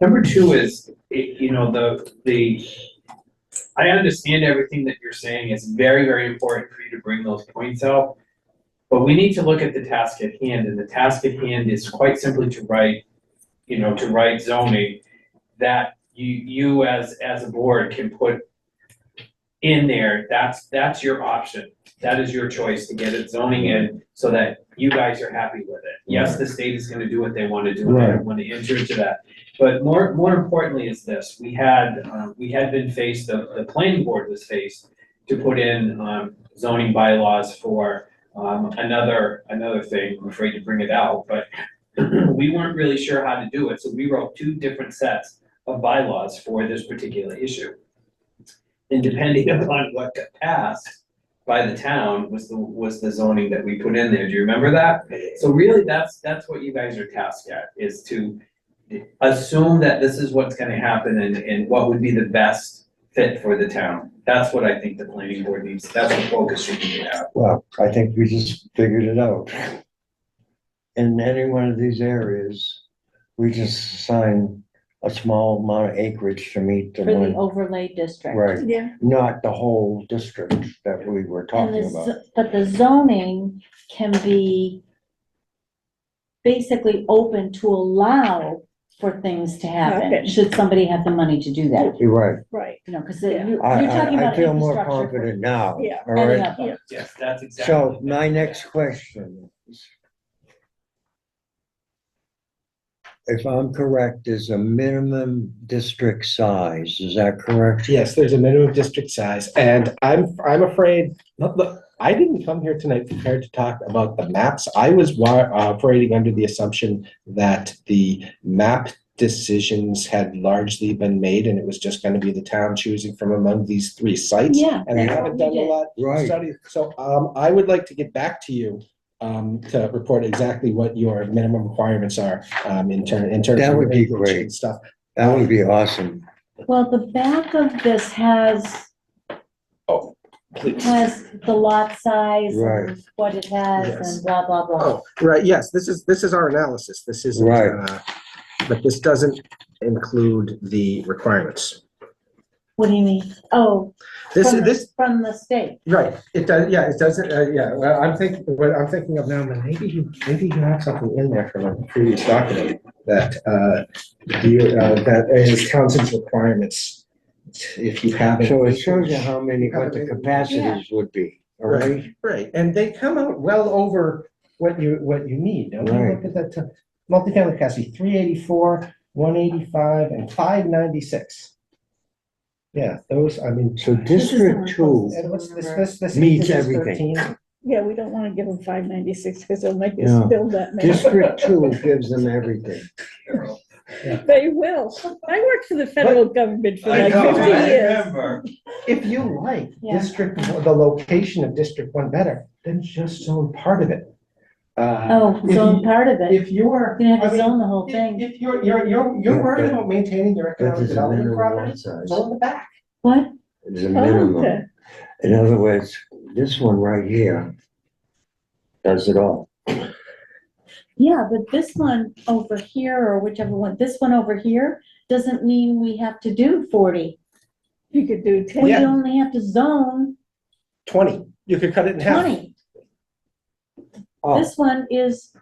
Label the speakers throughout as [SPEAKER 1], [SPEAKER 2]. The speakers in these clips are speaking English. [SPEAKER 1] Number two is, it, you know, the, the, I understand everything that you're saying, it's very, very important for you to bring those points out. But we need to look at the task at hand, and the task at hand is quite simply to write, you know, to write zoning that you, you as, as a board can put in there, that's, that's your option, that is your choice to get it zoning in so that you guys are happy with it. Yes, the state is gonna do what they wanna do, and I don't wanna enter into that. But more, more importantly is this, we had, um, we had been faced, the, the planning board was faced to put in, um, zoning bylaws for, um, another, another thing, I'm afraid to bring it out, but we weren't really sure how to do it, so we wrote two different sets of bylaws for this particular issue. And depending upon what got passed by the town was the, was the zoning that we put in there, do you remember that? So really, that's, that's what you guys are tasked at, is to assume that this is what's gonna happen and, and what would be the best fit for the town. That's what I think the planning board needs, that's the focus you need to have.
[SPEAKER 2] Well, I think we just figured it out. In any one of these areas, we just assign a small amount of acreage to meet the
[SPEAKER 3] For the
[SPEAKER 2] one,
[SPEAKER 3] overlay district.
[SPEAKER 2] right,
[SPEAKER 4] Yeah.
[SPEAKER 2] not the whole district that we were
[SPEAKER 3] And uh,
[SPEAKER 2] talking
[SPEAKER 3] the,
[SPEAKER 2] about.
[SPEAKER 3] z- but the zoning can be basically open to allow for things to happen,
[SPEAKER 4] Happen.
[SPEAKER 3] should somebody have the money to do that,
[SPEAKER 2] You're right.
[SPEAKER 4] Right.
[SPEAKER 3] you know, because you,
[SPEAKER 4] Yeah.
[SPEAKER 3] you're
[SPEAKER 2] I,
[SPEAKER 3] talking
[SPEAKER 2] I,
[SPEAKER 3] about
[SPEAKER 2] I feel more
[SPEAKER 3] infrastructure. uh,
[SPEAKER 2] confident now, all
[SPEAKER 4] Yeah.
[SPEAKER 3] for any
[SPEAKER 2] right?
[SPEAKER 3] of them.
[SPEAKER 1] Yes, that's exactly.
[SPEAKER 2] So my next question is, if I'm correct, is a minimum district size, is that correct?
[SPEAKER 5] Yes, there's a minimum district size, and I'm, I'm afraid, look, look, I didn't come here tonight prepared to talk about the maps. I was wa- uh, operating under the assumption that the map decisions had largely been made, and it was just gonna be the town choosing from among these three sites.
[SPEAKER 3] Yeah,
[SPEAKER 5] And we
[SPEAKER 3] that's
[SPEAKER 5] haven't
[SPEAKER 3] what
[SPEAKER 5] done
[SPEAKER 3] we
[SPEAKER 5] a
[SPEAKER 3] did.
[SPEAKER 5] lot
[SPEAKER 2] Right.
[SPEAKER 5] study. So um, I would like to get back to you um, to report exactly what your minimum requirements are um, in turn, in terms of.
[SPEAKER 2] That would be
[SPEAKER 5] acreage and
[SPEAKER 2] great.
[SPEAKER 5] Stuff.
[SPEAKER 2] That would be awesome.
[SPEAKER 3] Well, the back of this has,
[SPEAKER 5] Oh, please.
[SPEAKER 3] has the lot size
[SPEAKER 2] Right.
[SPEAKER 3] and what it has
[SPEAKER 5] Yes.
[SPEAKER 3] and blah, blah, blah.
[SPEAKER 5] Oh, right, yes, this is, this is our analysis, this isn't,
[SPEAKER 2] Right.
[SPEAKER 5] uh, but this doesn't include the requirements.
[SPEAKER 3] What do you mean? Oh,
[SPEAKER 5] This,
[SPEAKER 3] from the-
[SPEAKER 5] this,
[SPEAKER 3] From the state.
[SPEAKER 5] right, it does, yeah, it doesn't, uh, yeah, well, I'm thinking, what I'm thinking of now, but maybe you, maybe you have something in there from a previous document that, uh, you, uh, that is Townsend's requirements, if you haven't.
[SPEAKER 2] So it shows you how many, what the capacities would be, all right?
[SPEAKER 5] Right, and they come out well over what you, what you need. Now, when you look
[SPEAKER 2] Right.
[SPEAKER 5] at that, t- multifamily capacity, three eighty-four, one eighty-five, and five ninety-six. Yeah, those, I mean.
[SPEAKER 2] So
[SPEAKER 3] is the one
[SPEAKER 2] District Two,
[SPEAKER 5] And what's this, this, this.
[SPEAKER 2] Meets
[SPEAKER 5] this is
[SPEAKER 2] everything.
[SPEAKER 5] 13.
[SPEAKER 4] Yeah, we don't want to give them five ninety-six because they'll make
[SPEAKER 2] Yeah.
[SPEAKER 4] us build that many.
[SPEAKER 2] District Two gives them everything.
[SPEAKER 4] They will. I worked for the federal government for
[SPEAKER 1] I
[SPEAKER 4] like
[SPEAKER 1] know,
[SPEAKER 4] fifty
[SPEAKER 1] I
[SPEAKER 4] years.
[SPEAKER 1] remember.
[SPEAKER 5] If you like
[SPEAKER 3] Yeah.
[SPEAKER 5] district, one- the location of District One better, then just zone part of it. Uh,
[SPEAKER 3] Oh,
[SPEAKER 5] if
[SPEAKER 3] so
[SPEAKER 5] you-
[SPEAKER 3] part of it,
[SPEAKER 5] If you are.
[SPEAKER 3] you have
[SPEAKER 5] I
[SPEAKER 3] to
[SPEAKER 5] mean,
[SPEAKER 3] zone the whole
[SPEAKER 5] If
[SPEAKER 3] thing.
[SPEAKER 5] if you're, you're, you're, you're worried about maintaining your
[SPEAKER 2] That
[SPEAKER 5] economic
[SPEAKER 2] is a
[SPEAKER 5] development
[SPEAKER 2] minimum
[SPEAKER 5] property,
[SPEAKER 2] lot size.
[SPEAKER 5] zone the back.
[SPEAKER 3] What?
[SPEAKER 2] It is a
[SPEAKER 4] Oh,
[SPEAKER 2] minimum.
[SPEAKER 4] okay.
[SPEAKER 2] In other words, this one right here does it all.
[SPEAKER 3] Yeah, but this one over here or whichever one, this one over here doesn't mean we have to do forty.
[SPEAKER 4] You could do ten.
[SPEAKER 3] We
[SPEAKER 5] Yeah.
[SPEAKER 3] only have to zone
[SPEAKER 5] Twenty, you could cut it in half.
[SPEAKER 3] twenty.
[SPEAKER 5] Oh,
[SPEAKER 3] This one is,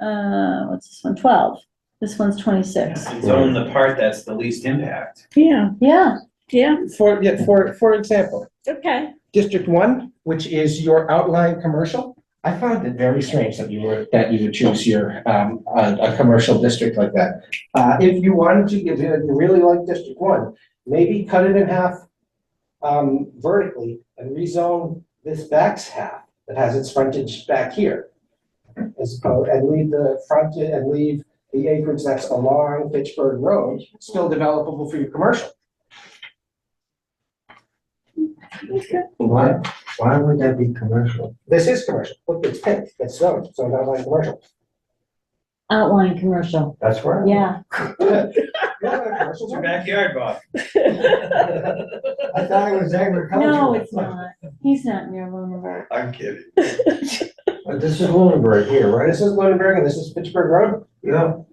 [SPEAKER 3] uh, what's this one? Twelve. This one's twenty-six.
[SPEAKER 1] And zone the part that's the least impact.
[SPEAKER 4] Yeah,
[SPEAKER 3] Yeah,
[SPEAKER 4] yeah,
[SPEAKER 5] For, yeah, for, for example,
[SPEAKER 4] okay.
[SPEAKER 5] District One, which is your outline commercial, I found it very strange that you were, that you would choose your, um, a, a commercial district like that. Uh, if you wanted to, if you really like District One, maybe cut it in half, um, vertically and rezone this back's half that has its frontage back here. As, opposed- and leave the front, and leave the acreage that's along Fitchburg Road still developable for your commercial.
[SPEAKER 2] Why, why would that be commercial?
[SPEAKER 5] This is commercial, look, it's pink, it's zoned, so not like commercial.
[SPEAKER 3] outline commercial.
[SPEAKER 2] That's right.
[SPEAKER 3] Yeah,
[SPEAKER 1] It's your backyard, Bob.
[SPEAKER 2] I thought it was agricultural.
[SPEAKER 3] no, it's not. He's not near Lunenburg.
[SPEAKER 1] I'm kidding.
[SPEAKER 2] But this is Lunenburg here, right?
[SPEAKER 5] This is Lunenburg and this is Pittsburgh Road?
[SPEAKER 2] No.